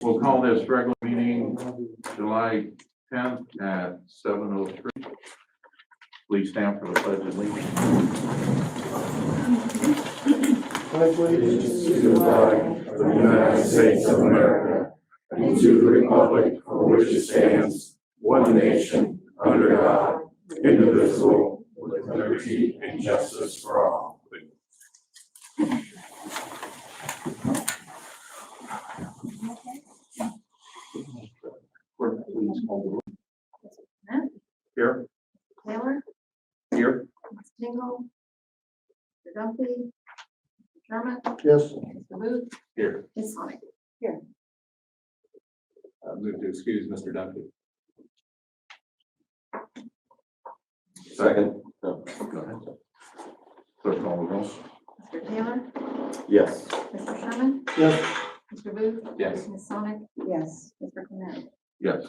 We'll call this regular meeting July tenth at seven oh three. Please stand for the pledge of allegiance. allegiance to the flag of the United States of America and to the republic for which it stands, one nation, under God, indivisible, with liberty and justice for all. Clerk, please call the roll. Matt, Here, Taylor, here. Ms. Tingle, Mr. Duffy, Mr. Sherman, Yes. Mr. Booth, Here. Ms. Sonic. Move to excuse Mr. Duffy. Second. Oh, Go ahead. Clerk, call the roll. Mr. Taylor, Yes. Mr. Sherman, Yes. Mr. Booth. Yes. Ms. Sonic. Yes. Mr. Clement. Yes.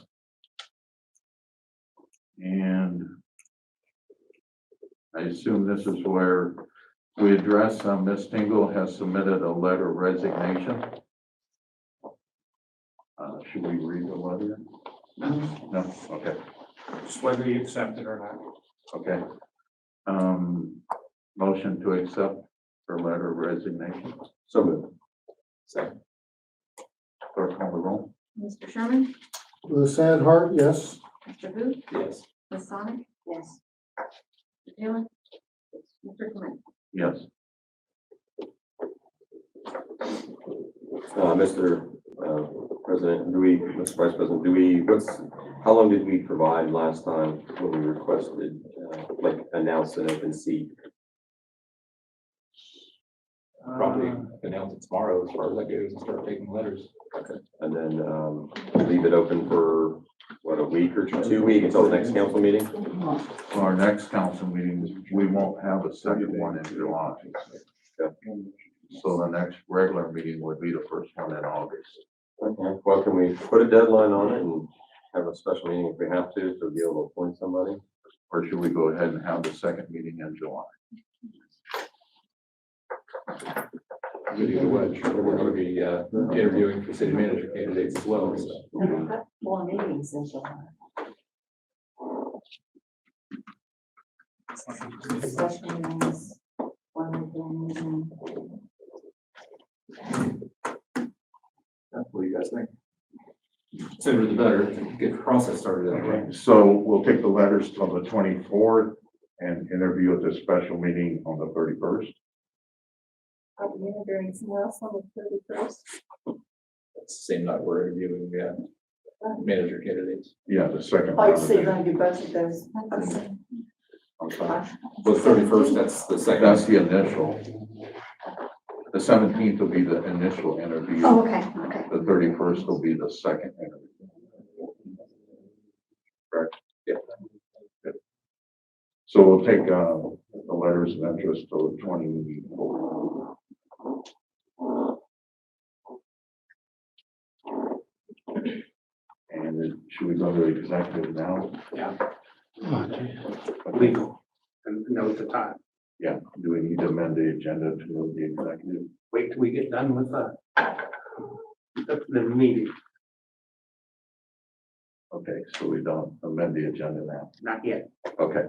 And I assume this is where we address, uh, Ms. Tingle has submitted a letter of resignation. Uh, Should we read the letter? No, okay, It's whether you accept it or not. okay. Um, Motion to accept her letter of resignation. So moved. Clerk call the roll. Mr. Sherman, With a sad heart, yes. Mr. Booth, Yes. Ms. Sonic. Yes. Mr. Taylor, Mr. Clement. Yes. Uh, Mr. uh, President, do we, Mr. Vice President, do we, what's, how long did we provide last time when we requested, uh, like, announce an open seat? Probably announce it tomorrow as far as that goes and start taking letters. And then um, leave it open for, what, a week or two weeks until the next council meeting? For Our next council meeting, we won't have a second one in July. So the next regular meeting would be the first one in August. Okay. Well, can we put a deadline on it and have a special meeting if we have to, to be able to appoint somebody? Or should we go ahead and have the second meeting in July? Good either way. Sure, We're going to be uh, interviewing for city manager candidates as well, so. More meetings in July. Special meetings, one weekend meeting. What do you guys think? Sooner the better, get the process started that way. So we'll take the letters till the twenty-fourth and interview at the special meeting on the thirty-first. Are we interviewing someone else on the thirty first? It's the Same night we're interviewing, yeah, manager candidates. Yeah, the second. Oh, you round of see, it. then you budget those. Okay. I'm sorry. But thirty-first, that's the That's second. the initial. The seventeenth will be the initial interview. okay, okay. The thirty-first will be the second interview. Correct? Yeah. Good. So we'll take, uh, the letters of interest to twenty-four. And then should we go to executive now? legal and know the time. Yeah, do we need to amend the agenda to move the executive? Wait till we get done with the the- the meeting, Okay, so we don't amend the agenda now. not yet. Okay.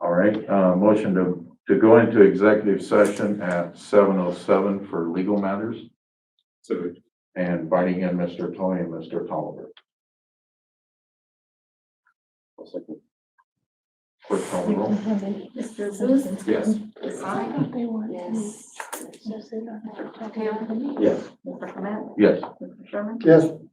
All right, uh, motion to, to go into executive session at seven oh seven for legal matters So and inviting in Mr. Toy and Mr. Tolliver. Quick call the roll. Mr. Booth, Yes. Ms. Sonic, Yes. Mr. Taylor, Yes. Mr. Clement, Yes, Mr. Sherman, Yes.